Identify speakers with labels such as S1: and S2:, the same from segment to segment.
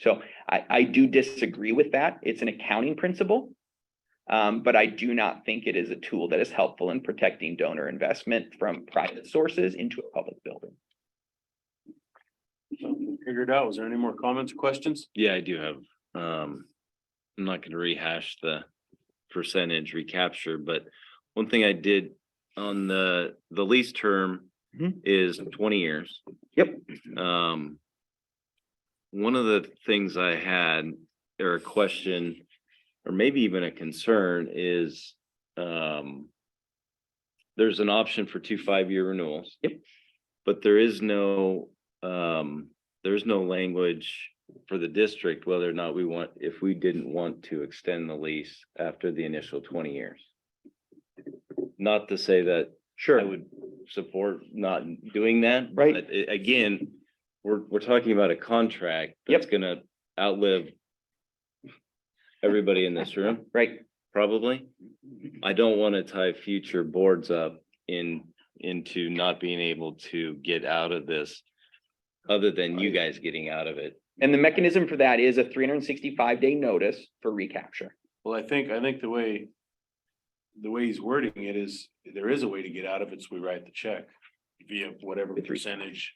S1: So I, I do disagree with that. It's an accounting principle. Um, but I do not think it is a tool that is helpful in protecting donor investment from private sources into a public building.
S2: Figured out. Was there any more comments, or questions?
S3: Yeah, I do have, um, I'm not gonna rehash the percentage recapture, but one thing I did on the, the lease term
S1: Mhm.
S3: is twenty years.
S1: Yep.
S3: Um, one of the things I had, or a question, or maybe even a concern is, um, there's an option for two five-year renewals.
S1: Yep.
S3: But there is no, um, there's no language for the district, whether or not we want, if we didn't want to extend the lease after the initial twenty years. Not to say that I
S1: Sure.
S3: would support not doing that.
S1: Right.
S3: but a- Again, we're, we're talking about a contract
S1: Yep.
S3: that's gonna outlive everybody in this room,
S1: Right.
S3: probably. I don't want to tie future boards up in, into not being able to get out of this, other than you guys getting out of it.
S1: And the mechanism for that is a three hundred and sixty-five day notice for recapture.
S2: Well, I think, I think the way. The way he's wording it is, there is a way to get out of it, so we write the check via whatever
S1: With re-
S2: percentage.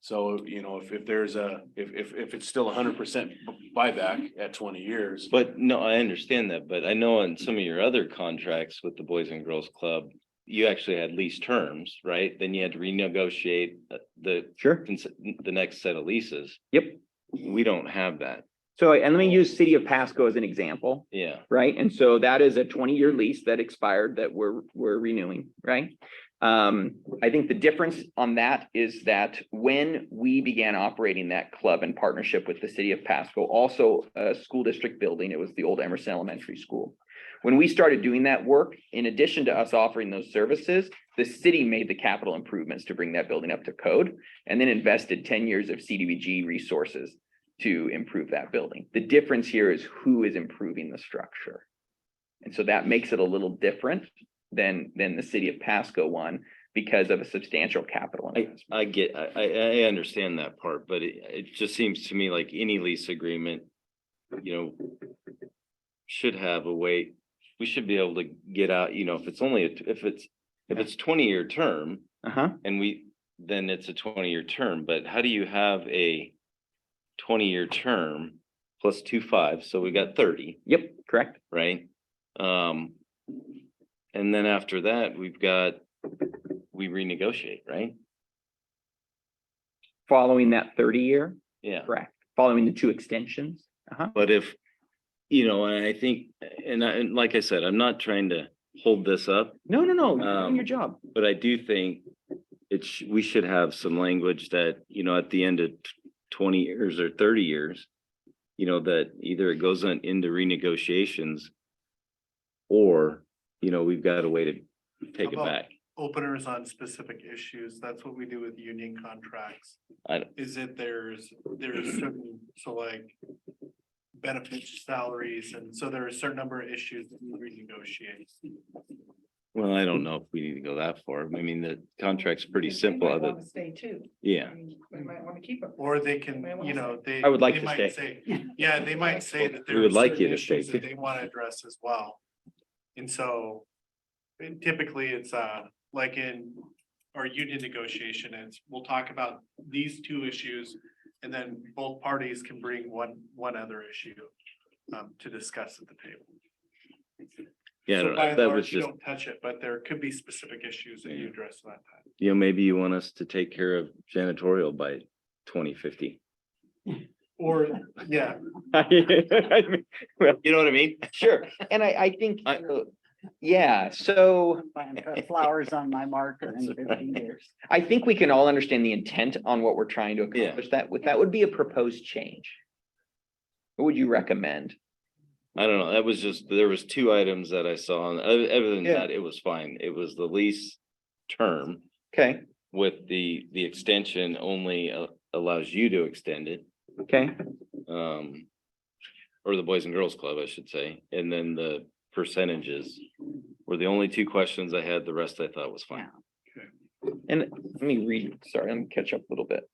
S2: So, you know, if, if there's a, if, if, if it's still hundred percent buyback at twenty years.
S3: But no, I understand that, but I know on some of your other contracts with the Boys and Girls Club, you actually had lease terms, right? Then you had to renegotiate uh, the,
S1: Sure.
S3: the next set of leases.
S1: Yep.
S3: We don't have that,
S1: So, and let me use City of Pasco as an example.
S3: yeah.
S1: right? And so that is a twenty-year lease that expired that we're, we're renewing, right? Um, I think the difference on that is that when we began operating that club in partnership with the city of Pasco, also a school district building, it was the old Emerson Elementary School. When we started doing that work, in addition to us offering those services, the city made the capital improvements to bring that building up to code and then invested ten years of CDBG resources to improve that building. The difference here is who is improving the structure. And so that makes it a little different than, than the city of Pasco one because of a substantial capital investment.
S3: I get, I, I, I understand that part, but it, it just seems to me like any lease agreement, you know, should have a way, we should be able to get out, you know, if it's only, a- if it's, if it's twenty-year term,
S1: Uh-huh.
S3: And we, then it's a twenty-year term, but how do you have a twenty-year term plus two five, so we got thirty,
S1: Yep, correct.
S3: right? Um, and then after that, we've got, we renegotiate, right?
S1: Following that thirty year,
S3: Yeah,
S1: correct. Following the two extensions. Uh-huh.
S3: but if, you know, and I think, and I, and like I said, I'm not trying to hold this up,
S1: No, no, no, you're doing
S3: Um,
S1: your job.
S3: but I do think it's, we should have some language that, you know, at the end of t- twenty years or thirty years, you know, that either it goes on into renegotiations or, you know, we've got a way to take it
S4: How about-
S3: back.
S4: openers on specific issues, that's what we do with union contracts.
S3: I don't-
S4: Is that there's, there's certain, so like benefits, salaries, and so there are a certain number of issues that we renegotiate.
S3: Well, I don't know if we need to go that far. I mean, the contract's pretty simple,
S5: I
S3: other,
S5: want to stay too. I
S3: yeah.
S5: mean, We might want to keep it.
S4: Or they can, you know, they.
S1: I would like
S4: they
S1: to
S4: might say- Yeah, they might say that there
S3: We
S4: are
S3: would like you
S4: certain
S3: to stay
S4: issues that
S3: too.
S4: they want to address as well. And so and typically it's uh, like in our union negotiation, it's, we'll talk about these two issues. And then both parties can bring one, one other issue um, to discuss at the table.
S3: Yeah, I
S4: So
S3: don't
S4: by
S3: know.
S4: and
S3: that
S4: large,
S3: was
S4: you
S3: just,
S4: Don't touch it, but there could be specific issues that you
S3: Yeah.
S4: address at that time.
S3: you know, maybe you want us to take care of janitorial by twenty fifty.
S4: Or, yeah,
S1: I mean,
S3: You know what I mean?
S1: Sure. And I, I think,
S3: I-
S1: uh, yeah, so.
S5: I'm buying uh, Flowers on my marker in fifteen years.
S1: I think we can all understand the intent on what we're trying to
S3: Yeah.
S1: accomplish. That would, that would be a proposed change. What would you recommend?
S3: I don't know, that was just, there was two items that I saw, and other, other than that, it was fine, it was the lease term
S1: Okay,
S3: with the, the extension only uh, allows you to extend it,
S1: okay,
S3: um, or the Boys and Girls Club, I should say, and then the percentages were the only two questions I had, the rest I thought was fine.
S1: and let me read, sorry, let me catch up a little bit.